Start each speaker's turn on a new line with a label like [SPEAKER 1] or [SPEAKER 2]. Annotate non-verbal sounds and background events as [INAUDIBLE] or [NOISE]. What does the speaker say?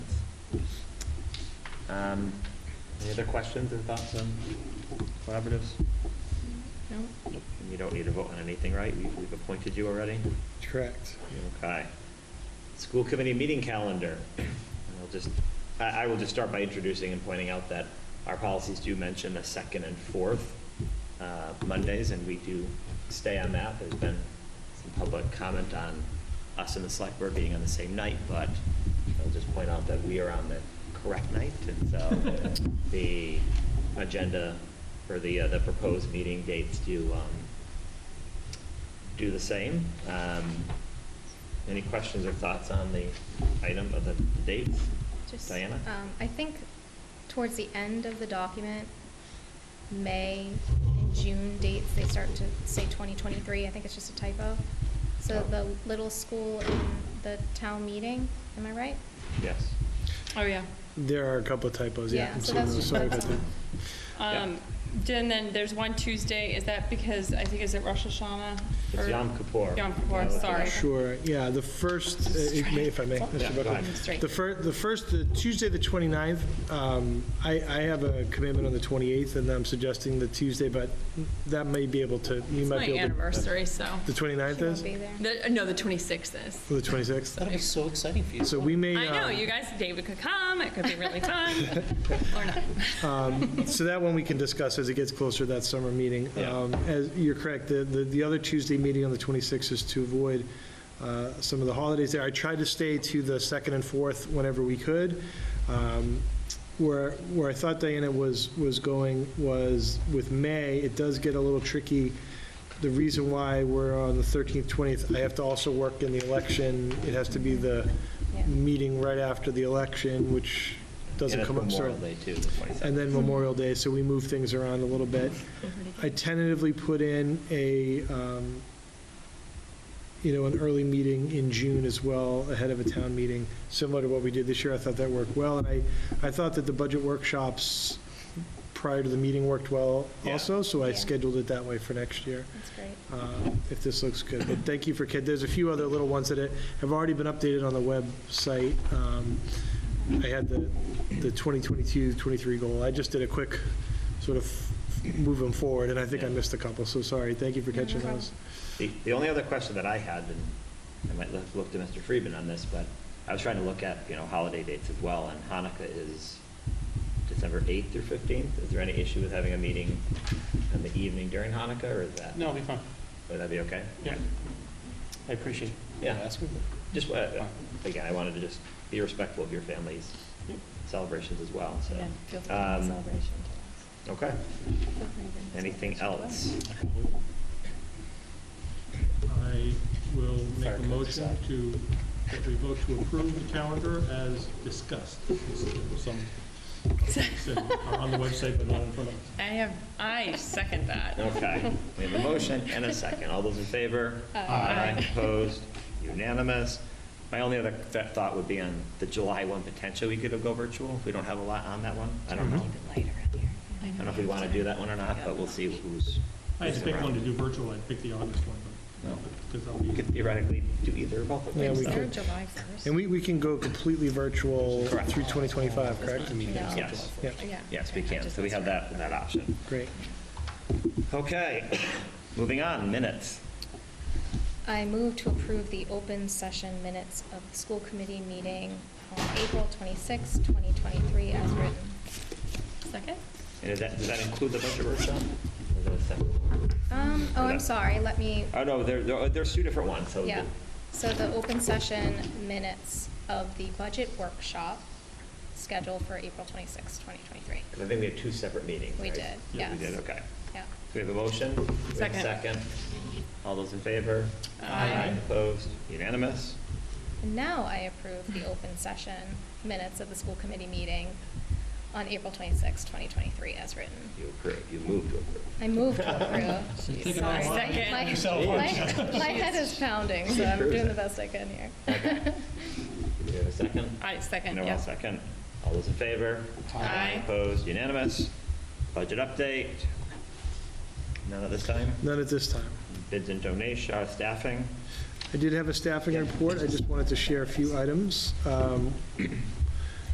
[SPEAKER 1] Um, Any other questions or thoughts on collaboratives? And you don't need to vote on anything, right? We've we've appointed you already?
[SPEAKER 2] Correct.
[SPEAKER 1] Okay. School committee meeting calendar. And I'll just, I, I will just start by introducing and pointing out that our policies do mention the second and fourth uh, Mondays, and we do stay on that. There's been some public comment on us and the select board being on the same night, but I'll just point out that we are on the correct night, and so the agenda for the, uh, the proposed meeting dates do, um, do the same. Um, Any questions or thoughts on the item of the dates?
[SPEAKER 3] Just,
[SPEAKER 1] Diana?
[SPEAKER 3] um, I think towards the end of the document, May and June dates, they start to say 2023. I think it's just a typo. So
[SPEAKER 1] Oh.
[SPEAKER 3] the little school and the town meeting, am I right?
[SPEAKER 1] Yes.
[SPEAKER 4] Oh, yeah.
[SPEAKER 2] There are a couple of typos, yeah.
[SPEAKER 3] Yeah,
[SPEAKER 2] I'm
[SPEAKER 3] so
[SPEAKER 2] seeing
[SPEAKER 3] that's
[SPEAKER 2] those.
[SPEAKER 3] just-
[SPEAKER 2] Sorry about
[SPEAKER 3] that's
[SPEAKER 2] that.
[SPEAKER 4] Um, And then there's one Tuesday, is that because, I think, is it Rosh Hashanah?
[SPEAKER 1] It's
[SPEAKER 4] or-
[SPEAKER 1] Yom Kippur.
[SPEAKER 4] Yom Kippur, sorry.
[SPEAKER 2] Sure, yeah, the first, uh, if may- if I may,
[SPEAKER 1] Yeah,
[SPEAKER 2] Mr.
[SPEAKER 1] go
[SPEAKER 2] Buckley.
[SPEAKER 1] ahead.
[SPEAKER 4] Straight.
[SPEAKER 2] The first, the first, the Tuesday, the 29th, um, I, I have a commitment on the 28th, and I'm suggesting the Tuesday, but that may be able to, you
[SPEAKER 4] It's my
[SPEAKER 2] might be able to.
[SPEAKER 4] anniversary, so,
[SPEAKER 2] The 29th
[SPEAKER 3] She won't
[SPEAKER 2] is?
[SPEAKER 3] be there.
[SPEAKER 4] the- uh, no, the 26th is.
[SPEAKER 2] Or the 26th?
[SPEAKER 5] That'll be so exciting for you.
[SPEAKER 2] So we may.
[SPEAKER 4] I know,
[SPEAKER 2] um,
[SPEAKER 4] you guys, David could come, it could be
[SPEAKER 2] [LAUGHS]
[SPEAKER 4] really fun, or not.
[SPEAKER 2] So that one we can discuss as it gets closer to that summer meeting.
[SPEAKER 1] Yeah.
[SPEAKER 2] Um, As, you're correct, the, the the other Tuesday meeting on the 26th is to avoid uh, some of the holidays there. I tried to stay to the second and fourth whenever we could. Um, Where, where I thought Diana was, was going was with May, it does get a little tricky. The reason why we're on the 13th, 20th, I have to also work in the election. It has to be the
[SPEAKER 3] Yeah.
[SPEAKER 2] meeting right after the election, which doesn't
[SPEAKER 1] And it's
[SPEAKER 2] come up.
[SPEAKER 1] Memorial
[SPEAKER 2] certainly.
[SPEAKER 1] Day, too, the 22nd.
[SPEAKER 2] And then Memorial Day, so we move things around a little bit. I tentatively put in a, um, you know, an early meeting in June as well, ahead of a town meeting, similar to what we did this year. I thought that worked well, and I, I thought that the budget workshops prior to the meeting worked well
[SPEAKER 1] Yeah.
[SPEAKER 2] also, so I
[SPEAKER 3] Yeah.
[SPEAKER 2] scheduled it that way for next year
[SPEAKER 3] That's great.
[SPEAKER 2] uh, if this looks good. But thank you for kid, there's a few other little ones that have already been updated on the website. Um, I had the, the 2022, 23 goal. I just did a quick sort of move them forward, and I think I
[SPEAKER 1] Yeah.
[SPEAKER 2] missed a couple, so sorry. Thank you for
[SPEAKER 3] No, no
[SPEAKER 2] catching
[SPEAKER 3] problem.
[SPEAKER 2] those.
[SPEAKER 1] The, the only other question that I had, and I might have looked to Mr. Friedman on this, but I was trying to look at, you know, holiday dates as well, and Hanukkah is December 8th through 15th. Is there any issue with having a meeting in the evening during Hanukkah, or is that?
[SPEAKER 5] No, it'll be fun.
[SPEAKER 1] Would that be okay?
[SPEAKER 5] Yeah. I appreciate it.
[SPEAKER 1] Yeah.
[SPEAKER 5] That's good.
[SPEAKER 1] Just, uh, again, I wanted to just be respectful of your family's celebrations as well, so.
[SPEAKER 6] Yeah, feel free to
[SPEAKER 1] um,
[SPEAKER 6] celebration.
[SPEAKER 1] Okay.
[SPEAKER 6] Feel free to
[SPEAKER 1] Anything
[SPEAKER 6] celebration.
[SPEAKER 1] else?
[SPEAKER 7] I will make
[SPEAKER 5] Fire
[SPEAKER 7] a
[SPEAKER 5] code
[SPEAKER 7] motion
[SPEAKER 5] aside.
[SPEAKER 7] to, that we vote to approve the calendar as discussed. This is Some, said are on the website, but not in front of us.
[SPEAKER 4] I have, I second that.
[SPEAKER 1] Okay, we have a motion and a second. All those in favor? Aye. Opposed? Unanimous. My only other th- thought would be on the July one, potentially we could go virtual. We don't have a lot on that one. I don't know.
[SPEAKER 2] Mm-hmm.
[SPEAKER 6] Later in here.
[SPEAKER 1] I don't know if we want to do that one or not, but we'll see who's.
[SPEAKER 7] I had to pick one to do virtual, I picked the August one,
[SPEAKER 1] No.
[SPEAKER 7] but, because I'll
[SPEAKER 1] We
[SPEAKER 7] be,
[SPEAKER 1] could theoretically do either or both of
[SPEAKER 2] Yeah,
[SPEAKER 1] them.
[SPEAKER 2] we
[SPEAKER 1] so-
[SPEAKER 2] could.
[SPEAKER 3] July 1st.
[SPEAKER 2] And we, we can go completely virtual
[SPEAKER 1] Correct.
[SPEAKER 2] through 2025, correct?
[SPEAKER 3] Yeah.
[SPEAKER 1] Yes,
[SPEAKER 2] Yeah,
[SPEAKER 3] Yeah.
[SPEAKER 1] yes, we can. So we have that, that option.
[SPEAKER 2] great.
[SPEAKER 1] Okay, [COUGHS] moving on, minutes.
[SPEAKER 3] I move to approve the open session minutes of the school committee meeting on April 26, 2023, as written.
[SPEAKER 4] Second?
[SPEAKER 1] And is that, does that include the budget workshop? Or is that a separate?
[SPEAKER 3] Um, oh, I'm sorry, let me,
[SPEAKER 1] Oh, no, there, there- there's two different ones, so.
[SPEAKER 3] Yeah, so the open session minutes of the budget workshop scheduled for April twenty sixth, 2023.
[SPEAKER 1] 'cause I think we had two separate meetings,
[SPEAKER 3] We
[SPEAKER 1] right?
[SPEAKER 3] did,
[SPEAKER 1] We
[SPEAKER 3] yes.
[SPEAKER 1] did, okay.
[SPEAKER 3] Yeah.
[SPEAKER 1] So we have a motion? we have a
[SPEAKER 4] Second.
[SPEAKER 1] Second. All those in favor?
[SPEAKER 4] Aye.
[SPEAKER 1] Opposed? Unanimous?
[SPEAKER 3] And now I approve the open session minutes of the school committee meeting on April twenty sixth, 2023, as written.
[SPEAKER 1] You approve, you move to approve.
[SPEAKER 3] I move to approve.
[SPEAKER 5] So take it
[SPEAKER 3] Sorry.
[SPEAKER 5] all
[SPEAKER 4] Second.
[SPEAKER 3] My-
[SPEAKER 5] Yourself
[SPEAKER 3] My my head is pounding, so I'm doing the
[SPEAKER 1] Jeez.
[SPEAKER 3] best I can here. [LAUGHS]
[SPEAKER 1] Okay. Do we have a second?
[SPEAKER 4] I second,
[SPEAKER 1] No,
[SPEAKER 4] yeah.
[SPEAKER 1] I'll second. All those in favor?
[SPEAKER 4] Aye.
[SPEAKER 1] Opposed? Unanimous? Budget update? None at this time?
[SPEAKER 2] None at this time.
[SPEAKER 1] Bids and donation, uh, staffing?
[SPEAKER 2] I did have a staffing report, I just wanted to share a few items. Um,